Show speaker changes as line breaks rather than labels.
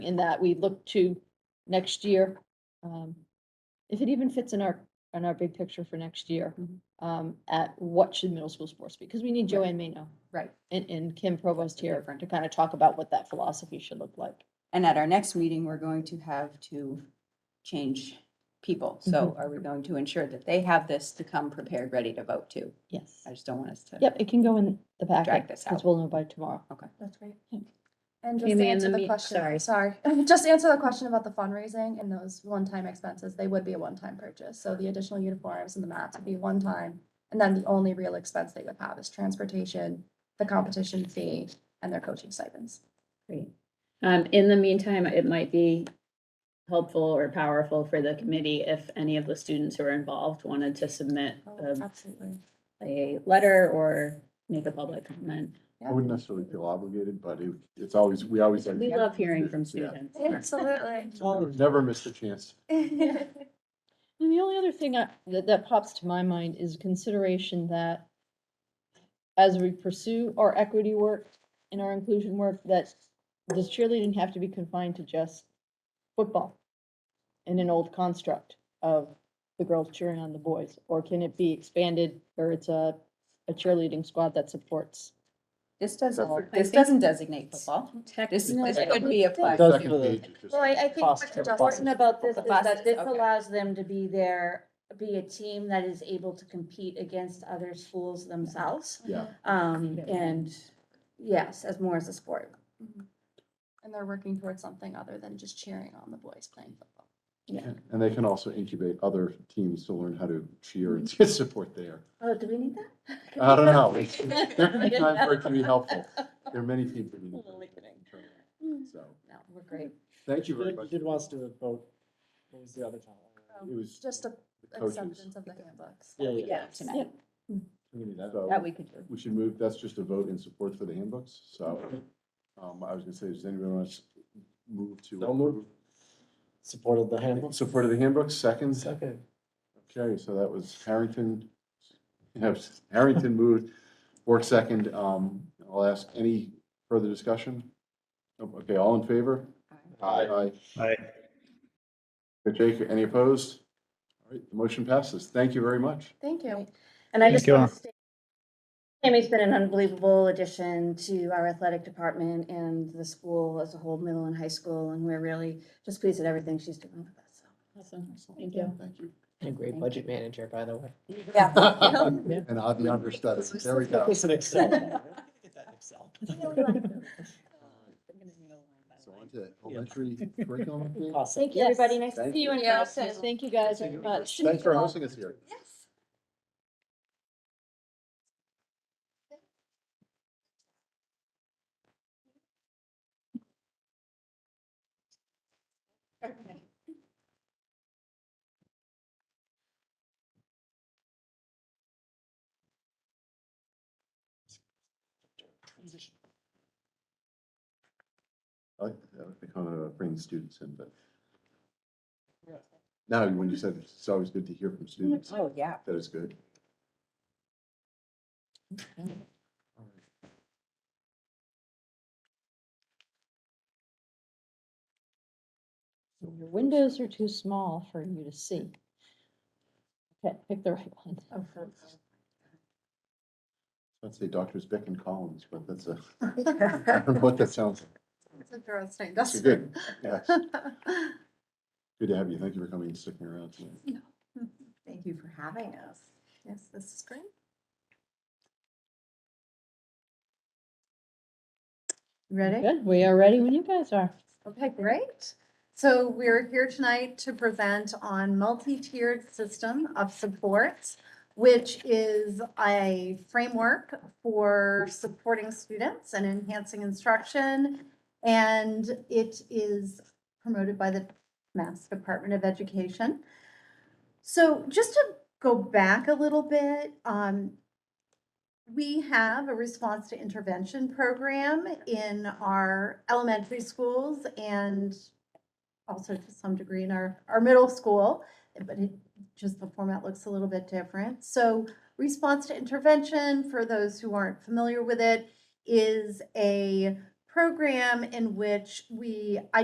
in that we look to next year. um, If it even fits in our, in our big picture for next year,
Mhm.
um, at what should middle school sports be? Because we need
Right.
Joanne Mano
Right.
and, and Kim Provost
the
here
different-
to kind of talk about what that philosophy should look like.
And at our next meeting, we're going to have to change people. So are we going to ensure that they have this to come prepared, ready to vote too?
Yes.
I just don't want us to.
Yep, it can go in the packet,
Drag this
because
out.
we'll know by tomorrow.
That's great.
Thank
And just
You
to
mean
answer
the
the
meet-
question,
sorry.
sorry, just to answer the question about the fundraising and those one-time expenses, they would be a one-time purchase. So the additional uniforms and the mats would be one time. And then the only real expense they would have is transportation, the competition fee, and their coaching stipends.
Great. Um, in the meantime, it might be helpful or powerful for the committee if any of the students who are involved wanted to submit a,
Oh, Absolutely.
a letter or make a public comment.
I wouldn't necessarily feel obligated, but it, it's always, we always, like-
We love hearing from
Yeah.
students.
Absolutely.
we've never missed a chance.
And the only other thing I, that, that pops to my mind is consideration that as we pursue our equity work and our inclusion work, that does cheerleading have to be confined to just football in an old construct of the girls cheering on the boys? Or can it be expanded where it's a, a cheerleading squad that supports?
This doesn't,
Perfect.
this
think-
doesn't designate football. This,
Technically,
this could be applied.
Does
Second
for the-
page is just-
Well, I, I think what's
Foster
important
buses.
about this
The
is that
buses,
this
okay.
allows them to be there, be a team that is able to compete against other schools themselves.
Yeah.
Um,
Yeah.
and yes, as more as a sport.
And they're working towards something other than just cheering on the boys playing football.
And they can also incubate other teams to learn how to cheer and to support there.
Oh, do we need that?
I don't know. There can be times where it can be helpful. There are many teams that need.
Totally kidding.
to- So,
No, we're great.
thank you
You
very
did-
much.
you did want us to vote. What was the other time?
It was
Oh,
Just a
the coaches.
acceptance of the handbooks.
Yeah, yeah.
Yeah, tonight. That
So
we could do.
we should move, that's just a vote in support for the handbooks. So, um, I was gonna say, does anyone want to move to?
Don't move. Supported the handbook.
Support of the handbooks, seconds?
Second.
Okay, so that was Harrington, yes, Harrington moved, Bork second. Um, I'll ask any further discussion? Oh, Okay, all in favor? Aye.
Aye.
Okay, Jake, any opposed? All right, the motion passes. Thank you very much.
Thank you.
And I
Thank
just
you.
want to state, Tammy's been an unbelievable addition to our athletic department and the school as a whole, middle and high school. And we're really just pleased at everything she's doing with us. so.
awesome. Thank you.
Thank you.
And a great budget manager, by the way.
Yeah.
And I'll be understudy. There we go.
It's an Excel. file. Get that in Excel.
So on to elementary curriculum. update.
Awesome.
Thank you, everybody.
Yes.
Nice to
Thank
see you in
Yeah,
person.
Thank you guys very much.
Thanks for hosting us here.
Yes.
I like the kind of bringing students in, but. Now, when you said it's always good to hear from students,
Oh, yeah.
that is good.
Your windows are too small for you to see. Okay, pick the right one.
I'd say Doctors Beck and Collins, but that's a, I don't know what that sounds like.
It's a girl's night,
So good. Yes. Good to have you. Thank you for coming and sticking around. tonight.
Thank you for having us.
Yes, this is great.
Ready?
Good, we are ready when you guys are.
Okay, great. So we're here tonight to present on multi-tiered system of supports, which is a framework for supporting students and enhancing instruction. And it is promoted by the Mass Department of Education. So just to go back a little bit, um, we have a response to intervention program in our elementary schools and also to some degree in our, our middle school, but it, just the format looks a little bit different. So response to intervention, for those who aren't familiar with it, is a program in which we